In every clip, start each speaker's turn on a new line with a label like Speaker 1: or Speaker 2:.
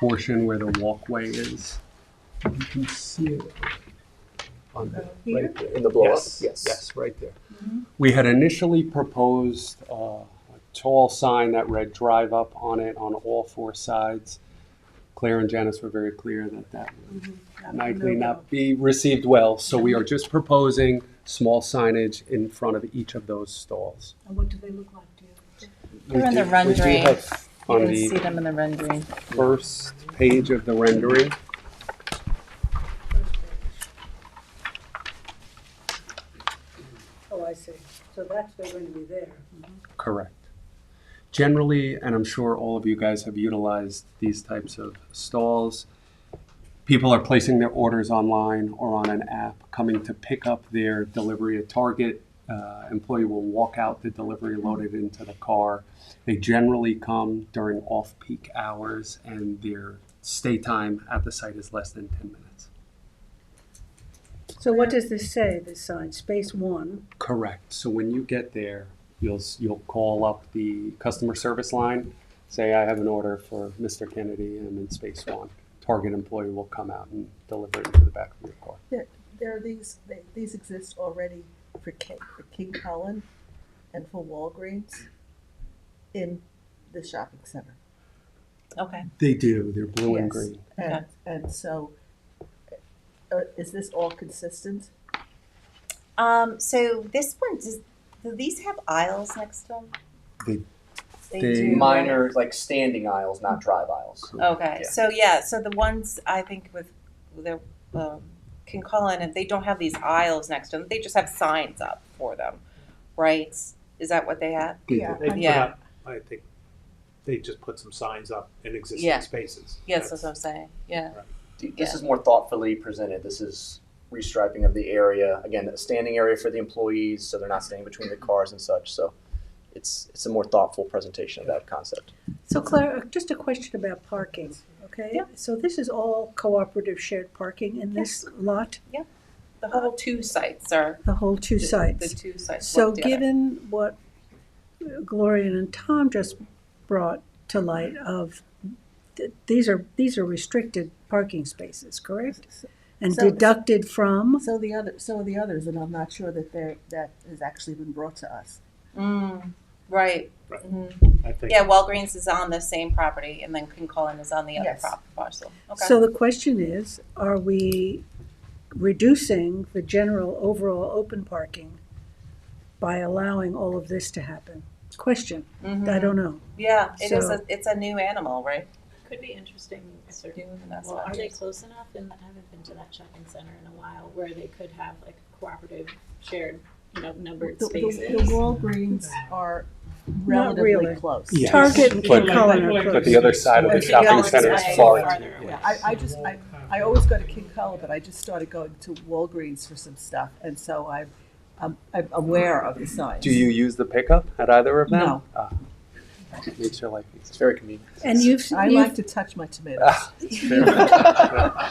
Speaker 1: portion where the walkway is. You can see it on that, right there, in the blow up.
Speaker 2: Yes,
Speaker 1: Yes,
Speaker 2: yes.
Speaker 1: right there.
Speaker 3: Mm-hmm.
Speaker 1: We had initially proposed uh, a tall sign that read "Drive Up" on it on all four sides. Claire and Janice were very clear that that would likely not be received well, so we are just proposing small signage in front of each of those stalls.
Speaker 4: And what do they look like, do you?
Speaker 1: We
Speaker 3: They're in the
Speaker 1: do- we do
Speaker 3: rendering.
Speaker 1: have
Speaker 3: You
Speaker 1: On
Speaker 3: can
Speaker 1: the
Speaker 3: see them in the rendering.
Speaker 1: first page of the rendering.
Speaker 4: Oh, I see. So that's, they're going to be there.
Speaker 1: Correct. Generally, and I'm sure all of you guys have utilized these types of stalls, people are placing their orders online or on an app, coming to pick up their delivery at Target. Uh, employee will walk out the delivery loaded into the car. They generally come during off peak hours, and their stay time at the site is less than 10 minutes.
Speaker 4: So what does this say, this sign, space one?
Speaker 1: Correct. So when you get there, you'll s- you'll call up the customer service line, say I have an order for Mr. Kennedy. I'm in space one. Target employee will come out and deliver it to the back of your car.
Speaker 5: There are these, they- these exist already for King, for King Cullen and for Walgreens in the shopping center.
Speaker 3: Okay.
Speaker 1: They do. They're blue and
Speaker 5: Yes.
Speaker 1: green.
Speaker 5: And, and so, uh, is this all consistent?
Speaker 6: Um, so this one does. Do these have aisles next to them?
Speaker 1: They-
Speaker 6: They,
Speaker 1: they-
Speaker 6: do.
Speaker 2: Minor, like standing aisles, not drive aisles.
Speaker 3: Okay.
Speaker 2: Yeah.
Speaker 6: So yeah. So the ones I think with the um, King Cullen, and they don't have these aisles next to them. They just have signs up for them, right? Is that what they have?
Speaker 1: They do.
Speaker 5: Yeah.
Speaker 7: They put
Speaker 6: Yeah.
Speaker 7: up, I think, they just put some signs up in
Speaker 3: Yeah.
Speaker 7: existing spaces.
Speaker 3: Yes, that's what I'm saying. Yeah.
Speaker 2: This
Speaker 3: Yeah.
Speaker 2: is more thoughtfully presented. This is restriping of the area. Again, a standing area for the employees, so they're not standing between the cars and such. So it's it's a more thoughtful presentation of that concept.
Speaker 4: So Claire, just a question about parking, okay?
Speaker 6: Yeah.
Speaker 4: So this is all cooperative shared parking in this lot,
Speaker 6: The whole two sites are
Speaker 4: the whole two
Speaker 6: the, The
Speaker 4: sites?
Speaker 6: two sites.
Speaker 4: So
Speaker 6: work together.
Speaker 4: given what Gloria and Tom just brought to light of, th- these are, these are restricted parking spaces, correct? And
Speaker 5: So-
Speaker 4: deducted from?
Speaker 5: So the other, so are the others, and I'm not sure that they're, that has actually been brought to us.
Speaker 3: Mm.
Speaker 6: right.
Speaker 7: Right.
Speaker 6: Mhm.
Speaker 7: I think
Speaker 3: Yeah.
Speaker 6: Yeah. Walgreens is on the same property, and then King Cullen is on the other
Speaker 5: Yes.
Speaker 6: prop parcel. Okay.
Speaker 4: So the question is, are we reducing the general overall open parking by allowing all of this to happen? Question,
Speaker 6: Mhm.
Speaker 5: Mm-hmm.
Speaker 4: I don't know.
Speaker 6: Yeah, it is.
Speaker 4: So-
Speaker 6: A, it's a new animal, right?
Speaker 8: Could be interesting, if they're-
Speaker 6: Doing the best
Speaker 8: well,
Speaker 6: I
Speaker 8: are they
Speaker 6: can.
Speaker 8: close enough, and I haven't been to that shopping center in a while, where they could have like cooperative, shared, you know, numbered
Speaker 5: The, the- the
Speaker 8: spaces?
Speaker 5: Walgreens are
Speaker 4: Not really.
Speaker 5: relatively close.
Speaker 1: Yeah.
Speaker 4: Target and
Speaker 1: But-
Speaker 4: Cullen are
Speaker 1: But
Speaker 4: close.
Speaker 1: the other side of the
Speaker 5: But the
Speaker 1: shopping
Speaker 5: other
Speaker 1: center
Speaker 5: side-
Speaker 1: is far.
Speaker 8: Farther away.
Speaker 5: I, I just, I, I always go to King Cullen, but I just started going to Walgreens for some stuff, and so I'm, I'm, I'm aware of the signs.
Speaker 1: Do you use the pickup at either of them?
Speaker 5: No.
Speaker 1: Ah. Makes your life
Speaker 2: It's
Speaker 1: easier.
Speaker 2: very convenient.
Speaker 4: And you've,
Speaker 5: I
Speaker 4: you've-
Speaker 5: like to touch my tomatoes.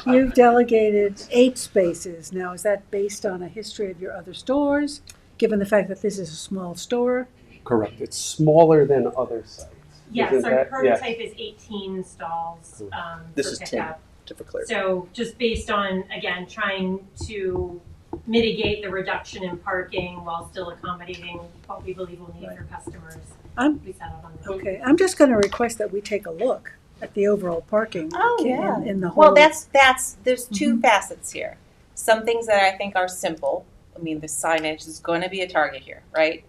Speaker 4: you've delegated eight spaces. Now, is that based on a history of your other stores, given the fact that this is a small store?
Speaker 1: Correct. It's smaller than other sites.
Speaker 9: Yes,
Speaker 1: Isn't
Speaker 9: our
Speaker 1: that- yeah.
Speaker 9: prototype is eighteen stalls,
Speaker 1: Cool.
Speaker 9: um, for pickup.
Speaker 2: This is 10. To for clarity.
Speaker 9: So just based on, again, trying to mitigate the reduction in parking while still accommodating what we believe we'll need for customers.
Speaker 4: I'm-
Speaker 9: We settled on that.
Speaker 4: Okay, I'm just gonna request that we take a look at the overall parking
Speaker 6: Oh,
Speaker 4: in-
Speaker 6: yeah.
Speaker 4: in the whole.
Speaker 3: Well,
Speaker 6: Well, that's that's there's 2 facets here. Some things that I think are simple. I mean, the signage is going to be a target here, right?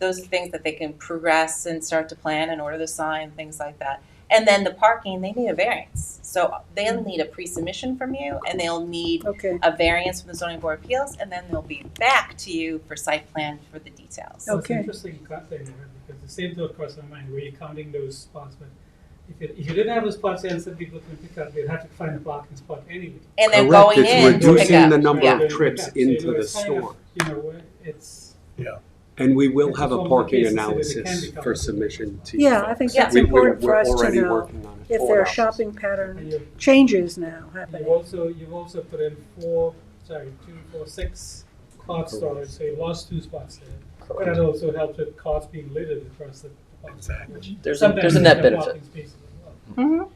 Speaker 6: Those are things that they can progress and start to plan and order the sign, things like that. And then the parking, they need a variance. So they'll need a pre-submission from you, and they'll need
Speaker 4: Okay,
Speaker 3: a variance from the zoning board of appeals, and then they'll be back to you for site plan for the details.
Speaker 4: Okay.
Speaker 10: It's interesting you got there, Nina, because the same thought crossed my mind, were you counting those spots, but if you, if you didn't have those spots, then some people can pick up, they'd have to find a parking spot anyway.
Speaker 3: And then
Speaker 1: Correct.
Speaker 3: going
Speaker 1: It's
Speaker 3: in to pick
Speaker 1: reducing
Speaker 3: up.
Speaker 1: the number
Speaker 3: Yeah.
Speaker 1: of trips
Speaker 10: So
Speaker 1: into
Speaker 10: you're
Speaker 1: the
Speaker 10: kind of,
Speaker 1: store.
Speaker 10: You know, it's.
Speaker 1: And we will have
Speaker 10: It's
Speaker 1: a
Speaker 10: one of the
Speaker 1: parking
Speaker 10: pieces that it can
Speaker 1: analysis
Speaker 10: become.
Speaker 1: for submission to you.
Speaker 4: yeah, I think
Speaker 3: Yeah.
Speaker 4: that's
Speaker 1: We- we're-
Speaker 4: important for
Speaker 1: we're
Speaker 4: us to
Speaker 1: already
Speaker 4: know
Speaker 1: working on it.
Speaker 4: if
Speaker 1: Forward
Speaker 4: there are
Speaker 1: options.
Speaker 4: shopping pattern
Speaker 10: And you,
Speaker 4: changes now
Speaker 10: you
Speaker 4: happening.
Speaker 10: also, you've also put in four, sorry, two, four, six cart storage, so you lost two spots there. But That also helps with carts being littered across the. Exactly.
Speaker 2: There's a, there's a net benefit.
Speaker 10: Spaces as well.
Speaker 3: Mhm.